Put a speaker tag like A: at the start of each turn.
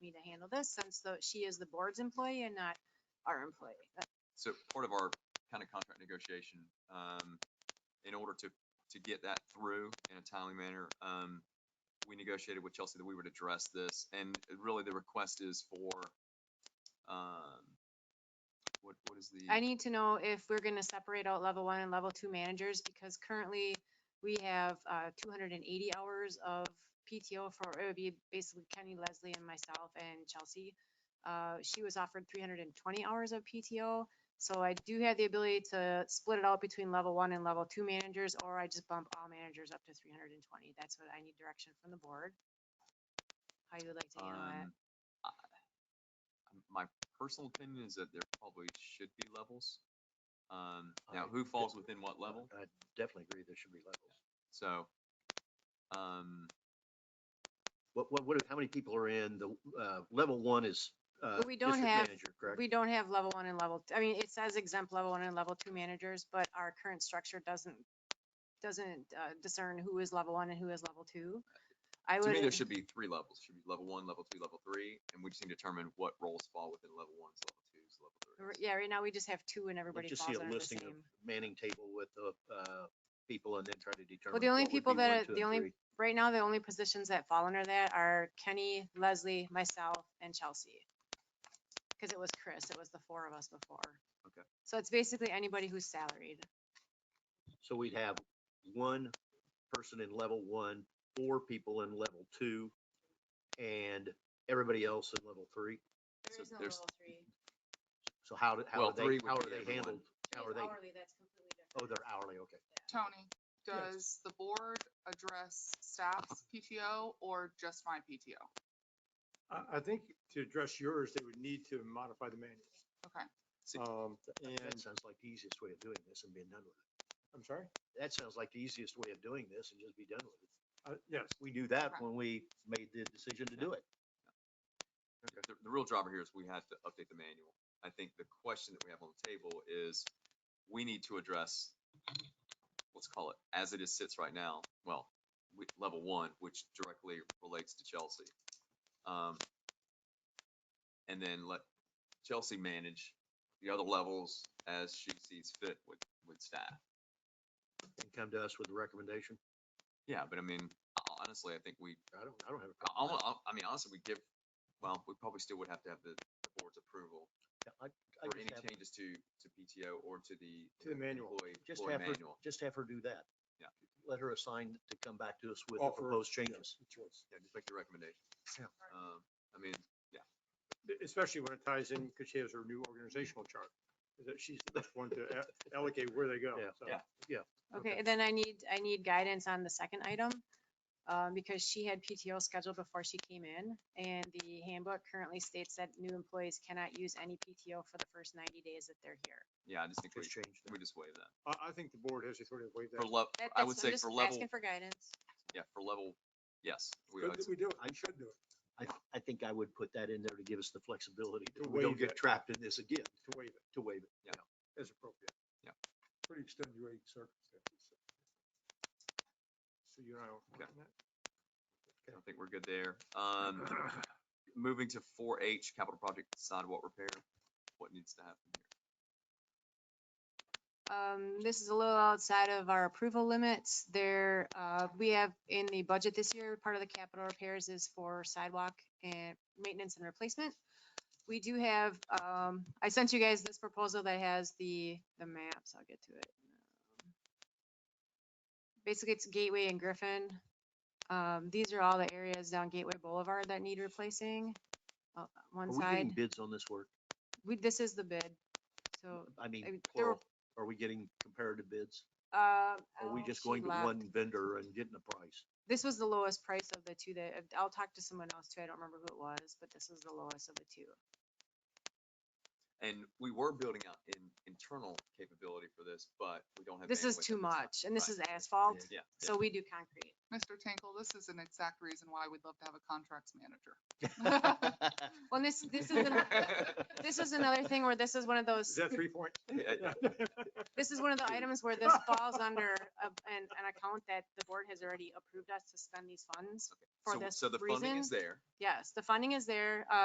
A: need to handle this since the, she is the board's employee and not our employee. Uh,
B: so part of our kind of contract negotiation, um, in order to, to get that through in a timely manner, um, we negotiated with Chelsea that we would address this, and really the request is for, um, what, what is the?
A: I need to know if we're gonna separate out level one and level two managers, because currently we have, uh, two hundred and eighty hours of PTO for, it would be basically Kenny, Leslie, and myself and Chelsea. Uh, she was offered three hundred and twenty hours of PTO, so I do have the ability to split it out between level one and level two managers, or I just bump all managers up to three hundred and twenty. That's what I need direction from the board. How you would like to handle that?
B: Um, I- um, My personal opinion is that there probably should be levels. Um, now,
C: I- Uh,
B: who falls within what level?
C: I definitely agree there should be levels.
B: So, um,
C: What, what, what, how many people are in the, uh, level one is, uh,
A: But we don't
C: district
A: have-
C: manager, Correct?
A: We don't have level one and level, I mean, it says exempt level one and level two managers, but our current structure doesn't, doesn't uh, discern who is level one and who is level two. I
B: to
A: would,
B: me, there should be three levels. Should be level one, level two, level three, and we just need to determine what roles fall within level ones, level twos, level
A: r-
B: threes.
A: yeah, right now we just have two and everybody
C: Let's just
A: falls
C: see a
A: under the
C: listing of
A: same.
C: manning table with the, uh, people and then try to determine.
A: the only
C: what would
A: people
C: be
A: that
C: one,
A: are-
C: two,
A: the
C: and
A: only-
C: three.
A: Right now, the only positions that fall under that are Kenny, Leslie, myself, and Chelsea. Because it was Chris, it was the four of us before.
B: Okay.
A: So it's basically anybody who's salaried.
C: So we'd have one person in level one, four people in level two, and everybody else in level three.
B: There So is no there's- level
A: three.
C: So how, do- how
B: Well,
C: are
B: three
C: they,
B: would
C: how
B: be
C: are they
B: everyone.
C: handled? How are they,
A: that's completely
C: oh, they're hourly, okay.
D: Tony,
C: Yes.
D: does the board address staff's PTO or just my PTO?
E: I, I think to address yours, they would need to modify the manuals.
D: Okay.
B: See-
E: Um,
C: That
E: and,
C: sounds like the easiest way of doing this and being done with it.
E: I'm sorry,
C: That sounds like the easiest way of doing this and just be done with it.
E: uh, yes,
C: We knew that
D: Okay.
C: when we made the decision to do it.
B: The, the real driver here is we have to update the manual. I think the question that we have on the table is, we need to address, let's call it, as it is sits right now, well, we, level one, which directly relates to Chelsea. Um, and then let Chelsea manage the other levels as she sees fit with, with staff.
C: And come to us with a recommendation.
B: Yeah, but I mean, ho- honestly, I think we,
C: I don't, I don't have a
B: I, I,
C: problem. with
B: I- I mean, honestly, we give, well, we probably still would have to have the the board's approval
C: that. I- I
B: for
C: just
B: any
C: have-
B: changes to, to PTO or to the.
E: To the manual.
B: Employee,
C: Just
B: employee
C: have her,
B: manual.
C: just have her do that.
B: Yeah.
C: Let her assign to come back to us with the
E: Offer-
C: proposed changes.
B: Yeah, just make the recommendation.
C: Yeah.
B: Um, I mean,
E: especially when it ties in, because she has her new organizational chart. is That she's the first one to a- allocate where they go.
C: Yeah.
E: so.
B: Yeah.
A: Okay, and then I need, I need guidance on the second item, um, because she had PTO scheduled before she came in, and the handbook currently states that new employees cannot use any PTO for the first ninety days that they're here.
B: yeah, I just think we,
C: Just change that.
B: we just waive that.
E: I, I think the board has the authority to waive
B: For
E: that.
B: level,
A: That-
B: I
A: that's-
B: would
A: I'm
B: say
A: just
B: for level,
A: Asking for guidance.
B: yeah, for level, yes. we-
E: Good
B: it's-
E: that We do it,
C: I-
E: we should do it,
C: I, I think I would put that in there to give us the flexibility
E: To
C: that we don't
E: waive
C: get
E: it.
C: trapped in this again,
E: to waive it
C: to waive it.
E: as appropriate.
B: Yeah.
E: Pretty extenuating circumstances. so. So you and I don't.
B: Okay. I think we're good there. Um,
E: that?
B: moving to four H, capital project sidewalk repair, what needs to happen here?
A: Um, this is a little outside of our approval limits. There, uh, we have in the budget this year, part of the capital repairs is for sidewalk and maintenance and replacement. We do have, um, I sent you guys this proposal that has the, the maps. I'll get to it. Basically, it's Gateway and Griffin. Um, these are all the areas down Gateway Boulevard that need replacing. uh,
C: Are
A: One
C: we getting
A: side,
C: bids on this work?
A: we, this is the bid. So,
C: I
A: I mean,
C: mean,
A: there were-
C: plural. Are we getting comparative bids?
A: uh.
C: Or Are we
A: oh,
C: just
A: she
C: going to
A: left.
C: one vendor and getting a price?
A: this was the lowest price of the two that, I'll talk to someone else too, I don't remember who it was, but this was the lowest of the two.
B: And we were building out in, internal capability for this, but we don't have.
A: This is
B: bandwidth at
A: too
B: this time.
A: much, and this
B: Right.
A: is asphalt,
B: Yeah. yeah.
A: so we do concrete.
D: Mr. Tinkle, this is an exact reason why we'd love to have a contracts manager.
A: Well, and this, this is, an- this is another thing where this is one of those,
E: Is that three points?
B: Yeah, yeah.
A: this is one of the items where this falls under a- an, an account that the board has already approved us to spend these funds
B: Okay.
A: for
B: So-
A: this
B: So the funding
A: reason.
B: is there.
A: Yes, the funding is there,